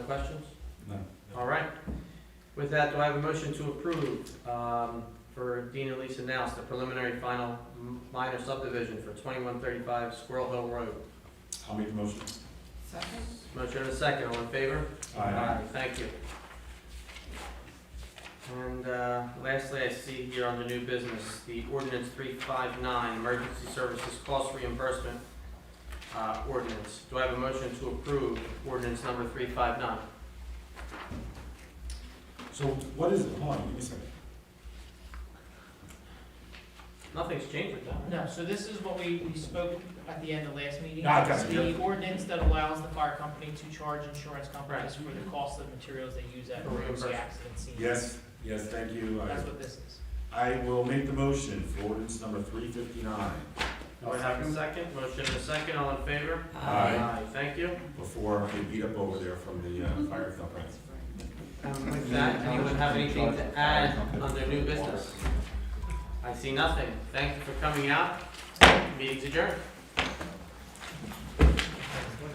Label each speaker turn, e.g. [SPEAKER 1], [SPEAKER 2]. [SPEAKER 1] questions?
[SPEAKER 2] No.
[SPEAKER 1] All right. With that, do I have a motion to approve um, for Dean and Lisa Nous, the preliminary final m- minor subdivision for 2135 Squirrel Hill Road?
[SPEAKER 2] I'll make the motion.
[SPEAKER 3] Second?
[SPEAKER 1] Motion and a second, all in favor? Thank you. And uh, lastly, I see here on the new business, the ordinance 359, emergency services cost reimbursement uh, ordinance. Do I have a motion to approve ordinance number 359?
[SPEAKER 2] So what is it, hold on, give me a second.
[SPEAKER 1] Nothing's changed with that, right?
[SPEAKER 3] No, so this is what we, we spoke at the end of last meeting.
[SPEAKER 2] Ah, gotcha,
[SPEAKER 3] It's The ordinance that allows the fire company to charge insurance companies for the cost of materials they use at
[SPEAKER 1] For
[SPEAKER 3] emergency
[SPEAKER 1] reimbursement.
[SPEAKER 3] accident scenes.
[SPEAKER 2] Yes, yes, thank you. I-
[SPEAKER 3] That's what this is.
[SPEAKER 2] I will make the motion for ordinance number three fifty-nine.
[SPEAKER 1] Do I have a second? Motion and a second, all in favor?
[SPEAKER 2] Aye.
[SPEAKER 1] Thank you.
[SPEAKER 2] Before I get beat up over there from the uh, fire company.
[SPEAKER 1] And Um, with that, anyone have anything to add on their new business? I see nothing. Thank you for coming out. Meeting's adjourned.